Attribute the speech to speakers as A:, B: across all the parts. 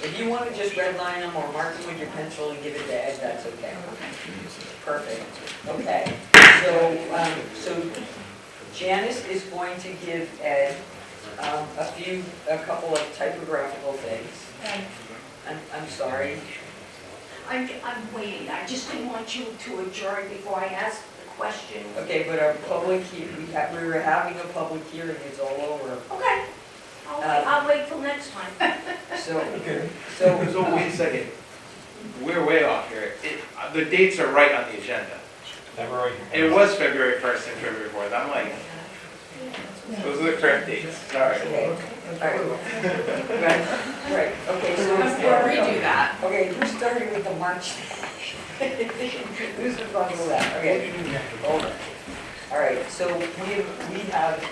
A: If you want to just redline them or mark them with your pencil and give it to Ed, that's okay. Perfect, okay. So, um, so Janice is going to give Ed, um, a few, a couple of typographical things.
B: And
A: I'm, I'm sorry.
B: I'm, I'm waiting, I just didn't want you to adjourn before I ask the question.
A: Okay, but our public, he- we have, we were having a public hearing, it's all over.
B: Okay, I'll wait, I'll wait till next time.
A: So,
C: Okay.
A: so,
D: So wait a second, we're way off here. It- uh, The dates are right on the agenda.
C: February.
D: It was February 1st and February 4th, I'm like, those are the correct dates, sorry.
A: okay, all right. Right, right, okay, so.
B: that.
A: Okay, who's starting with the march? Who's responsible for that? Okay. Hold on. All right, so we have, we have,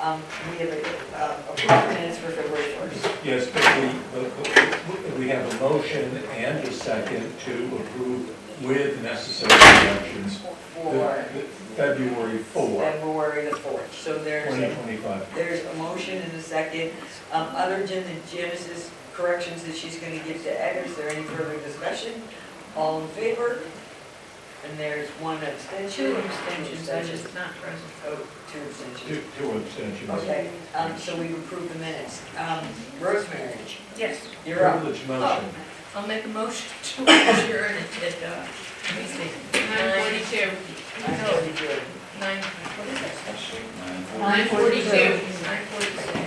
A: um, we have uh, approved minutes for February first.
E: Yes, but we, but- but we have a motion and a second to approve with necessary corrections
A: For
E: the- the February 4,
A: February the fourth. So there's,
E: 2025.
A: there's a motion and a second. Um, other than the Janice's corrections that she's gonna give to Ed, is there any further discussion? All in favor? And there's one abstention.
F: Two abstentions,
A: That
F: which
A: is,
F: is not present.
A: oh, two abstentions.
E: Two two abstentions.
A: Okay, um, so we've approved the minutes. Um, Rosemary,
F: Yes,
A: you're up. Oh,
E: Privilege motion.
F: I'll make a motion to adjourn at, uh, let me see, nine forty-two.
A: I'm
F: No,
A: totally good.
F: nine, what is that?
A: Nine
F: Nine forty-two. Nine forty-two.